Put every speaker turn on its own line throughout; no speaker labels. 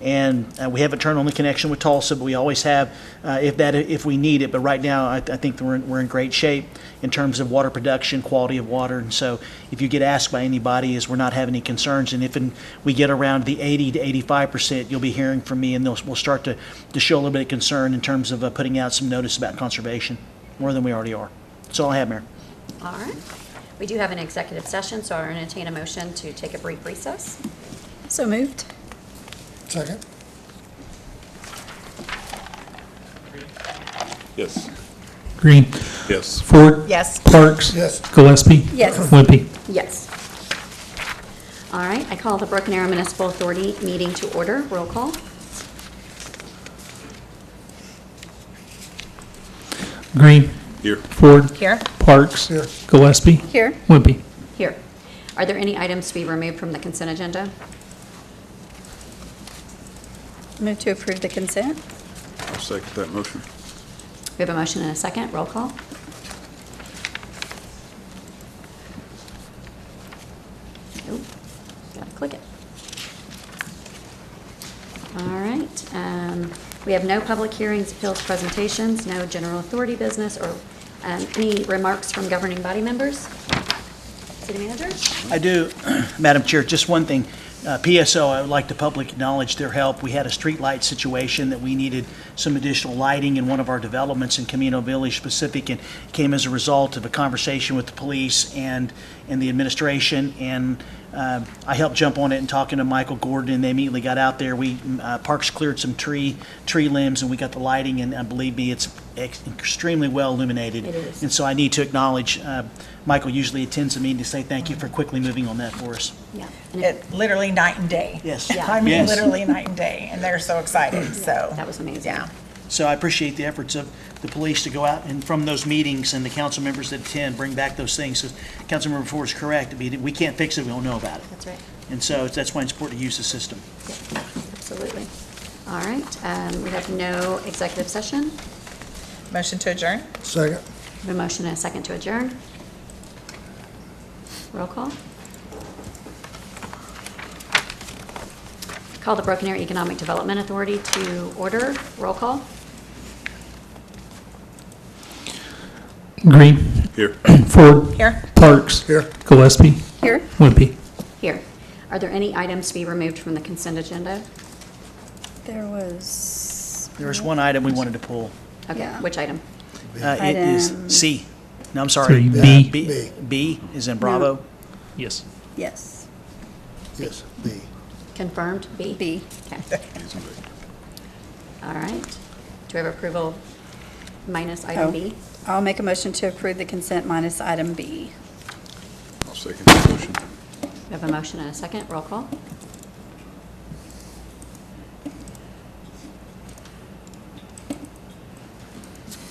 And uh, we haven't turned on the connection with Tulsa, but we always have uh, if that, if we need it. But right now, I, I think we're in, we're in great shape in terms of water production, quality of water. And so if you get asked by anybody, is we're not having any concerns. And if in, we get around the 80 to 85%, you'll be hearing from me and they'll, we'll start to, to show a little bit of concern in terms of uh, putting out some notice about conservation, more than we already are. That's all I have, Mayor.
All right. We do have an executive session, so I entertain a motion to take a brief recess.
So moved.
Second?
Yes.
Green.
Yes.
Ford.
Yes.
Parks.
Yes.
Gillespie.
Yes.
Wimpy.
Yes. All right, I call the Broken Arrow Municipal Authority meeting to order. Roll call.
Green.
Here.
Ford.
Here.
Parks.
Here.
Gillespie.
Here.
Wimpy.
Here. Are there any items to be removed from the consent agenda?
Move to approve the consent?
I'll second that motion.
We have a motion and a second. Roll call. Nope, gotta click it. All right, um, we have no public hearings, appeals, presentations, no general authority business, or um, any remarks from governing body members? City manager?
I do, Madam Chair, just one thing. Uh, PSO, I would like to publicly acknowledge their help. We had a streetlight situation that we needed some additional lighting in one of our developments in Camino Village specific, and came as a result of a conversation with the police and, and the administration. And um, I helped jump on it and talking to Michael Gordon, and they immediately got out there. We, uh, Parks cleared some tree, tree limbs, and we got the lighting, and uh, believe me, it's ex- extremely well illuminated.
It is.
And so I need to acknowledge, uh, Michael usually attends a meeting to say thank you for quickly moving on that for us.
Yeah. and it-
It literally night and day.
Yes. Yeah.
I mean,
Yes.
literally night and day, and they're so excited, so.
that was amazing.
Yeah.
So I appreciate the efforts of the police to go out and from those meetings and the council members that attend, bring back those things. So Councilmember Ford is correct. I mean, we can't fix it, we don't know about it.
That's right.
And so it's- that's why it's important to use the system.
Absolutely. All right, um, we have no executive session.
Motion to adjourn?
Second?
We have A motion and a second to adjourn. Roll call. Call the Broken Arrow Economic Development Authority to order. Roll call.
Green.
Here.
Ford.
Here.
Parks.
Here.
Gillespie.
Here.
Wimpy.
Here. Are there any items to be removed from the consent agenda?
There was.
There was one item we wanted to pull.
Okay,
Yeah.
which item?
Uh, It is
Item-
C. No, I'm sorry.
Three,
Uh,
B.
B B is in Bravo.
Yes.
Yes.
Yes, B.
Confirmed? B?
B.
Okay. All right. Do we have approval minus
Oh.
item B?
I'll make a motion to approve the consent minus item B.
I'll second that motion.
We have a motion and a second. Roll call.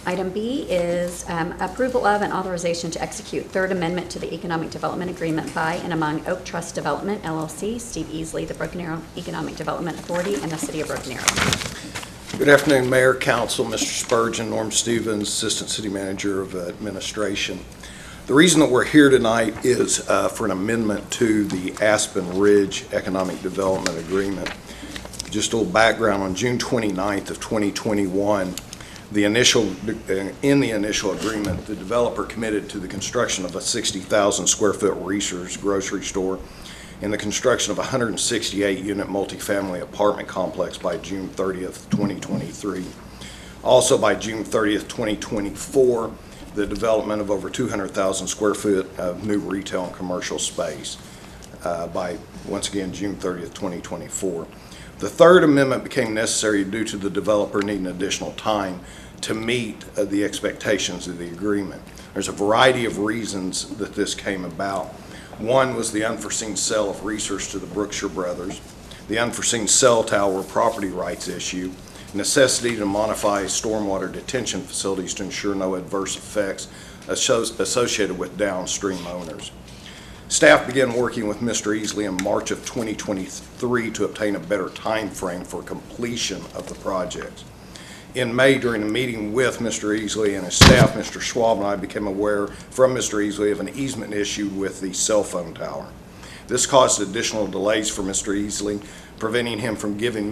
Item B is um, approval of and authorization to execute Third Amendment to the Economic Development Agreement by and among Oak Trust Development LLC, Steve Easley, the Broken Arrow Economic Development Authority, and the City of Broken Arrow.
Good afternoon, Mayor, Council, Mr. Spurgeon, Norm Stevens, Assistant City Manager of Administration. The reason that we're here tonight is uh, for an amendment to the Aspen Ridge Economic Development Agreement. Just a little background, on June 29th of 2021, the initial, uh, in the initial agreement, the developer committed to the construction of a 60,000 square foot Reese's grocery store in the construction of a 168-unit multifamily apartment complex by June 30th, 2023. Also, by June 30th, 2024, the development of over 200,000 square foot of new retail and commercial space uh, by, once again, June 30th, 2024. The third amendment became necessary due to the developer needing additional time to meet uh, the expectations of the agreement. There's a variety of reasons that this came about. One was the unforeseen sale of research to the Brookshire Brothers, the unforeseen cell tower property rights issue, necessity to modify stormwater detention facilities to ensure no adverse effects asso- associated with downstream owners. Staff began working with Mr. Easley in March of 2023 to obtain a better time frame for completion of the projects. In May, during a meeting with Mr. Easley and his staff, Mr. Schwab and I became aware from Mr. Easley of an easement issue with the cell phone tower. This caused additional delays for Mr. Easley, preventing him from giving